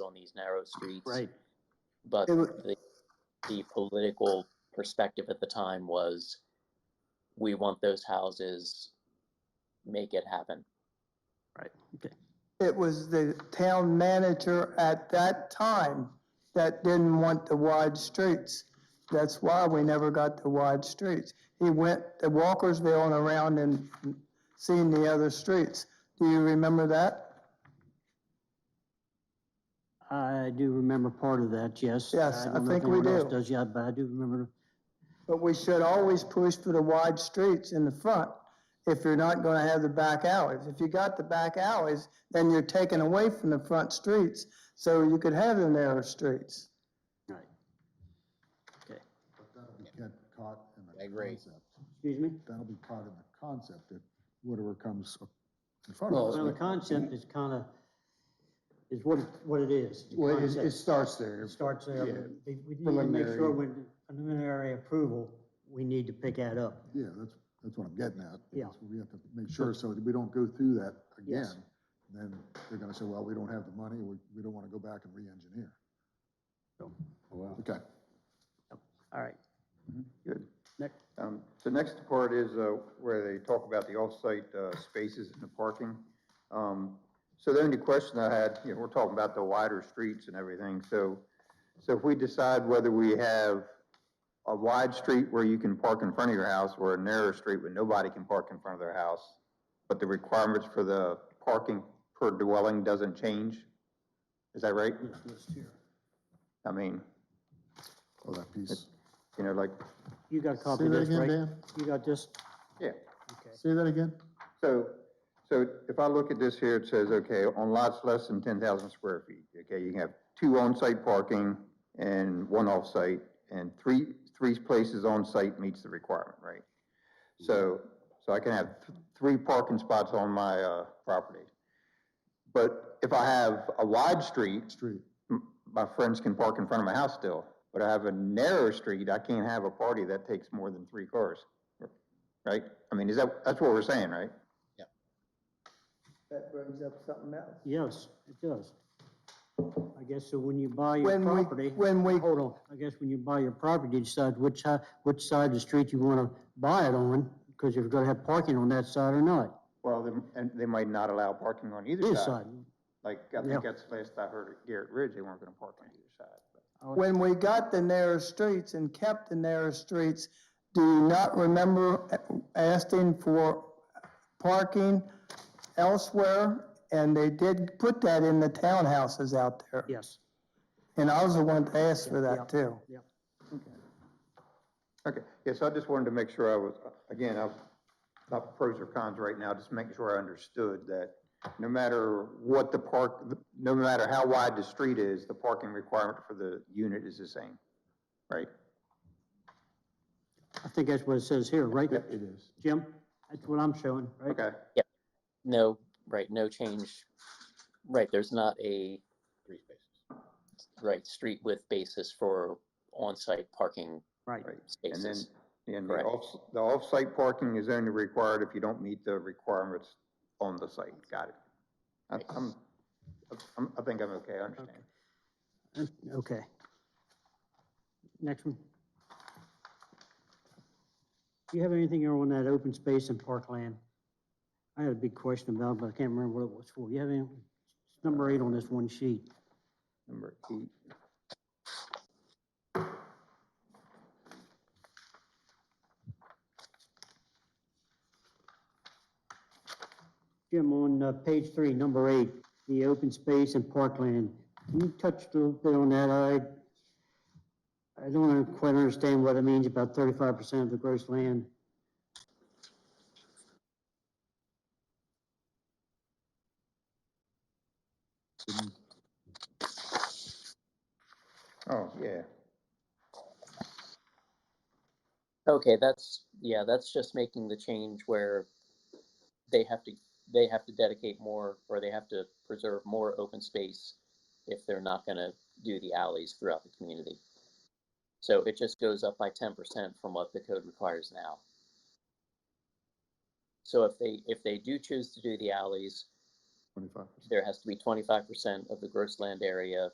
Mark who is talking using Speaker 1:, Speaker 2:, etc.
Speaker 1: on these narrow streets.
Speaker 2: Right.
Speaker 1: But
Speaker 2: It wa-
Speaker 1: the, the political perspective at the time was, we want those houses, make it happen.
Speaker 2: It was the town manager at that time that didn't want the wide streets. That's why we never got the wide streets. He went to Walkersville and around and seen the other streets. Do you remember that?
Speaker 3: I do remember part of that, yes.
Speaker 2: Yes, I
Speaker 3: don't know if
Speaker 2: think we
Speaker 3: anyone else
Speaker 2: do.
Speaker 3: Does, yeah, but I do remember,
Speaker 2: But we should always push for the wide streets in the front if you're not gonna have the back alleys. If you got the back alleys, then you're taking away from the front streets, so you could have the narrow streets.
Speaker 3: right. Okay,
Speaker 4: But that'll be kept caught in the
Speaker 5: I agree.
Speaker 4: concept.
Speaker 3: excuse me?
Speaker 4: That'll be caught in the concept if whatever comes in front of us.
Speaker 3: Well, the
Speaker 4: but-
Speaker 3: concept is kind of, is what, it- what it is. the
Speaker 6: Well, it,
Speaker 3: concept.
Speaker 6: it starts there.
Speaker 3: It starts there.
Speaker 6: yeah,
Speaker 3: We we need to make sure
Speaker 6: preliminary.
Speaker 3: when preliminary approval, we need to pick that up.
Speaker 4: Yeah, that's, that's what I'm getting at.
Speaker 3: Yeah.
Speaker 4: is We have to make sure so that we don't go through that
Speaker 3: Yes.
Speaker 4: again. Then they're gonna say, well, we don't have the money, we, we don't wanna go back and re-engineer.
Speaker 5: Oh,
Speaker 6: Well,
Speaker 4: Okay.
Speaker 3: All right.
Speaker 7: Good.
Speaker 3: Next.
Speaker 7: Um, The next part is uh, where they talk about the off-site uh, spaces and the parking. Um, So the only question I had, you know, we're talking about the wider streets and everything, so, so if we decide whether we have a wide street where you can park in front of your house or a narrow street where nobody can park in front of their house, but the requirements for the parking per dwelling doesn't change? Is that right? I mean,
Speaker 4: Oh, that piece.
Speaker 7: you know, like,
Speaker 3: You got a copy
Speaker 4: Say
Speaker 3: of
Speaker 4: that
Speaker 3: this,
Speaker 4: again,
Speaker 3: right?
Speaker 4: Dan?
Speaker 3: You got this?
Speaker 7: yeah.
Speaker 3: Okay.
Speaker 4: Say that again?
Speaker 7: So, so if I look at this here, it says, okay, on lots less than ten thousand square feet, okay, you can have two on-site parking and one off-site, and three, three places on-site meets the requirement, right? So, so I can have th- three parking spots on my, uh, property. But if I have a wide street,
Speaker 4: Street.
Speaker 7: m- my friends can park in front of my house still, but I have a narrow street, I can't have a party that takes more than three cars. Right? I mean, is that, that's what we're saying, right?
Speaker 2: That brings up something else.
Speaker 3: Yes, it does. I guess so when you buy your
Speaker 2: When we-
Speaker 3: property.
Speaker 2: when we-
Speaker 3: Hold on, I guess when you buy your property, you decide which, hi- which side of the street you want to buy it on, because you're going to have parking on that side or not.
Speaker 7: Well, then, and they might not allow parking on either
Speaker 3: This
Speaker 7: side.
Speaker 3: side.
Speaker 7: Like, I
Speaker 3: Yeah.
Speaker 7: think that's the last I heard at Garrett Ridge, they weren't gonna park on either side. but-
Speaker 2: When we got the narrow streets and kept the narrow streets, do you not remember asking for parking elsewhere? And they did put that in the townhouses out there.
Speaker 3: Yes,
Speaker 2: And I was the one to ask for
Speaker 3: Yeah.
Speaker 2: that too.
Speaker 3: yeah.
Speaker 7: Okay, yes, I just wanted to make sure I was, again, I was not pros or cons right now, just making sure I understood that no matter what the park, no matter how wide the street is, the parking requirement for the unit is the same, right?
Speaker 3: I think that's what it says here, right?
Speaker 4: It is.
Speaker 3: Jim, that's what I'm showing, right?
Speaker 7: Okay,
Speaker 1: No, right, no change. Right, there's not a,
Speaker 5: three spaces.
Speaker 1: right, street width basis for on-site parking
Speaker 3: Right.
Speaker 7: right. And then,
Speaker 1: spaces.
Speaker 7: and the
Speaker 1: Correct.
Speaker 7: off, the off-site parking is only required if you don't meet the requirements on the site. Got it. I'm- I'm, I'm, I think I'm okay, I understand.
Speaker 3: Okay. Next one. Do you have anything on that open space and parkland? I had a big question about, it, but I can't remember what it was for. You have any, it's number eight on this one sheet.
Speaker 7: Number eight.
Speaker 3: Jim, on uh, page three, number eight, the open space and parkland. Can you touch a little bit on that? I, I don't quite understand what it means about thirty-five percent of the gross land.
Speaker 7: Oh, yeah.
Speaker 1: Okay, that's, yeah, that's just making the change where they have to, they have to dedicate more, or they have to preserve more open space if they're not gonna do the alleys throughout the community. So it just goes up by ten percent from what the code requires now. So if they, if they do choose to do the alleys,
Speaker 4: twenty-five percent.
Speaker 1: there has to be twenty-five percent of the gross land area